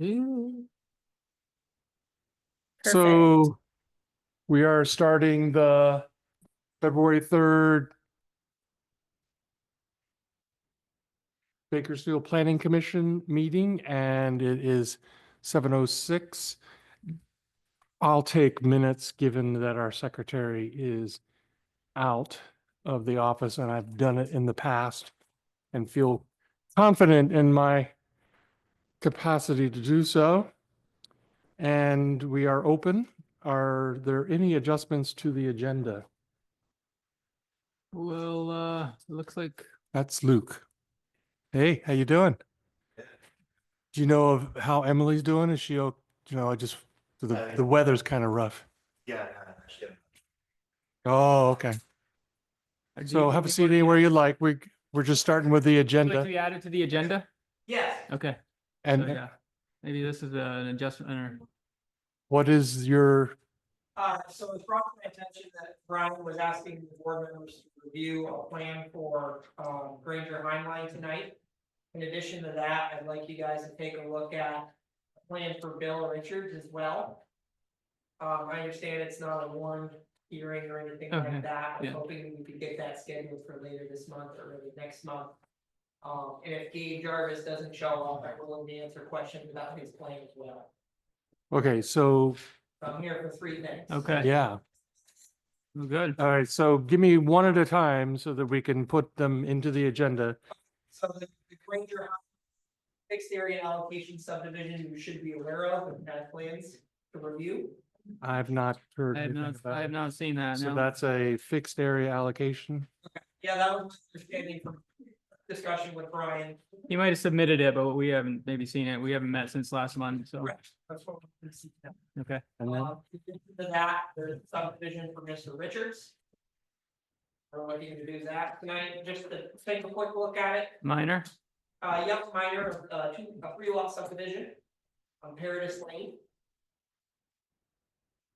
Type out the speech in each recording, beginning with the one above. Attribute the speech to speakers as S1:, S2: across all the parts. S1: Mm-hmm. So we are starting the February third Bakersfield Planning Commission meeting and it is seven oh six. I'll take minutes, given that our secretary is out of the office and I've done it in the past and feel confident in my capacity to do so. And we are open. Are there any adjustments to the agenda?
S2: Well, uh, it looks like
S1: That's Luke. Hey, how you doing? Do you know of how Emily's doing? Is she, o- you know, I just, the,
S3: Uh,
S1: the weather's kind of rough.
S3: Yeah, I haven't actually.
S1: Oh, okay.
S2: uh, do
S1: So
S2: you-
S1: have
S2: do
S1: a
S2: you
S1: seat
S2: want-
S1: anywhere you like. We, we're just starting with the
S2: would you Like to
S1: agenda
S2: be added to the agenda?
S3: Yes.
S2: Okay, so
S1: and
S2: yeah, maybe this is uh, an adjustment or,
S1: what is your,
S4: Uh, so it's brought to my attention that Brian was asking the board members to review a plan for, um, Granger Heinlein tonight. In addition to that, I'd like you guys to take a look at a plan for Bill Richards as well. Um, I understand it's not a warned hearing or anything
S2: Okay,
S4: like that.
S2: yeah.
S4: I'm hoping we could get that scheduled for later this month or maybe next month. Um, and if Gabe Jarvis doesn't show up, I will answer questions about his plan as well.
S1: okay, so,
S4: So I'm here for three minutes.
S2: okay,
S1: yeah. Uh,
S2: well, good.
S1: All right, so give me one at a time so that we can put them into the agenda.
S4: So the, the Granger. Fixed area allocation subdivision, you should be aware of, and that plans to review.
S1: I've not heard
S2: I have
S1: anything
S2: not, I
S1: about
S2: have
S1: it.
S2: not seen that,
S1: So
S2: no.
S1: that's a fixed area allocation.
S4: Yeah, that was my understanding from discussion with Brian.
S2: He might have submitted it, but we haven't maybe seen it. We haven't met since last month, so,
S4: That's what we see now.
S2: okay.
S1: And then,
S4: Uh, in addition To that, there's subdivision for Mr. Richards. We're looking to do that tonight, just to take a quick look at it,
S2: Minor,
S4: uh, yep, minor, uh, two, a three lot subdivision. On Paradise Lane.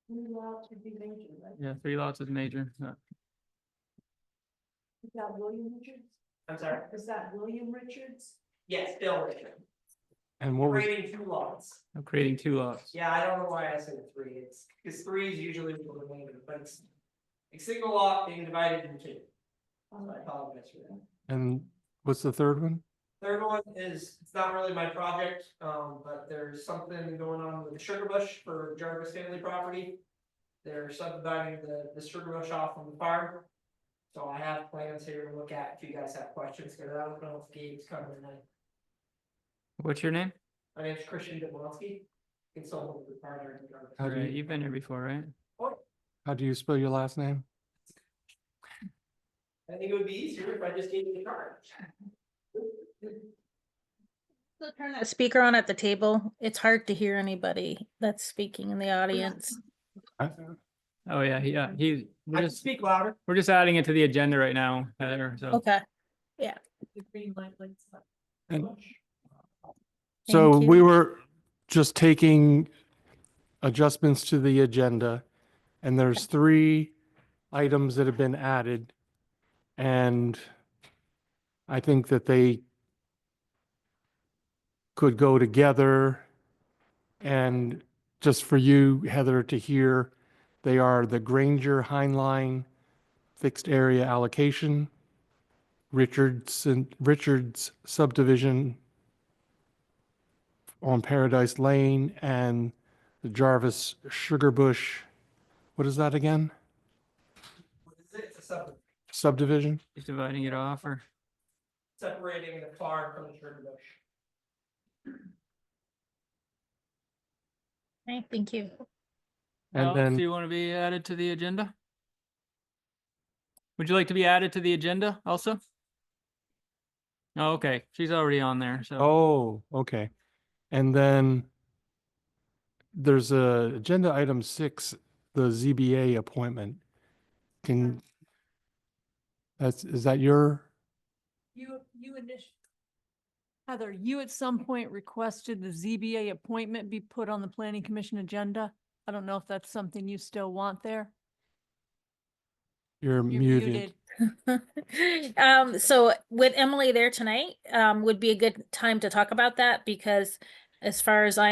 S4: Three lots would be major, right?
S2: yeah, three lots is major. uh,
S5: Is that William Richards?
S4: I'm sorry,
S5: Is that William Richards?
S4: yes, Bill Richards.
S1: and what was,
S4: Creating two lots.
S2: I'm creating two lots.
S4: Yeah, I don't know why I said three. It's, because three is usually the remainder, but it's. A single lot being divided into two.
S5: Uh,
S4: So I apologize for that.
S1: and what's the third one?
S4: Third one is, it's not really my project, um, but there's something going on with the Sugar Bush for Jarvis family property. They're subdividing the, the Sugar Bush off from the farm. So I have plans here to look at if you guys have questions, because I don't know if Gabe's coming tonight.
S2: What's your name?
S4: My name's Christian Demonsky, consultant with partner in Jarvis.
S1: How do
S2: Right,
S1: you-
S2: You've been here before, right?
S1: How do you spell your last name?
S4: I think it would be easier if I just gave you the card.
S6: Also Turn that speaker on at the table. It's hard to hear anybody that's speaking in the audience.
S1: I-
S2: Oh, yeah, he- yeah, he, we're
S4: I can
S2: just,
S4: speak louder.
S2: we're just adding it to the agenda right now, Heather, so.
S6: Okay,
S5: The green light lights up.
S1: And- So
S6: Thank
S1: we
S6: you.
S1: were just taking adjustments to the agenda. And there's three items that have been added. And I think that they could go together. And just for you, Heather, to hear, they are the Granger Heinlein Fixed Area Allocation, Richardson, Richards subdivision on Paradise Lane and the Jarvis Sugar Bush. What is that again?
S4: What is it? It's a sub,
S1: Subdivision?
S2: Just dividing it off or,
S4: separating the farm from the sugar bush.
S6: Okay, Thank you.
S1: And
S2: Alex, do
S1: then,
S2: you want to be added to the agenda? Would you like to be added to the agenda also? Oh, okay, she's already on there, so,
S1: oh, okay. And then there's a agenda item six, the ZBA appointment. Can, that's, is that your,
S5: You, you initially. Heather, you at some point requested the ZBA appointment be put on the planning commission agenda. I don't know if that's something you still want there.
S1: you're
S5: You're
S1: muted?
S6: Um, so with Emily there tonight, um, would be a good time to talk about that because as far as I